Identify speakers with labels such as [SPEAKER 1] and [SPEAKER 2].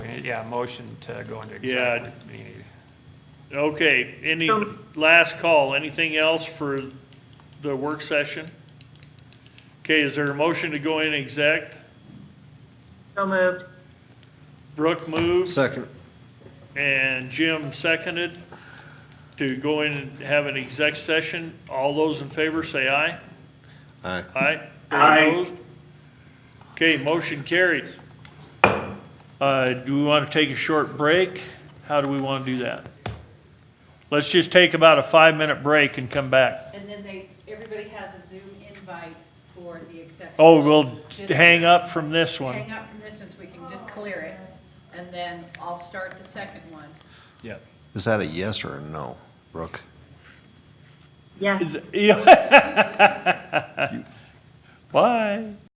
[SPEAKER 1] yeah, motion to go into
[SPEAKER 2] Yeah.
[SPEAKER 1] executive meeting.
[SPEAKER 2] Okay, any,
[SPEAKER 3] So-
[SPEAKER 2] last call, anything else for the work session? Okay, is there a motion to go in exec?
[SPEAKER 3] So moved.
[SPEAKER 2] Brooke moved
[SPEAKER 4] Second.
[SPEAKER 2] and Jim seconded to go in and have an exec session. All those in favor say aye.
[SPEAKER 4] Aye.
[SPEAKER 2] Aye. Those
[SPEAKER 3] Aye.
[SPEAKER 2] opposed? Okay, motion carried. Uh, do we want to take a short break? How do we want to do that? Let's just take about a five-minute break and come back.
[SPEAKER 5] And then they, everybody has a Zoom invite for the exception.
[SPEAKER 2] Oh, we'll hang up from this one.
[SPEAKER 5] Hang up from this one so we can just clear it, and then I'll start the second one.
[SPEAKER 2] Yeah.
[SPEAKER 4] Is that a yes or a no, Brooke?
[SPEAKER 3] Yes.
[SPEAKER 2] Is, yeah. Bye.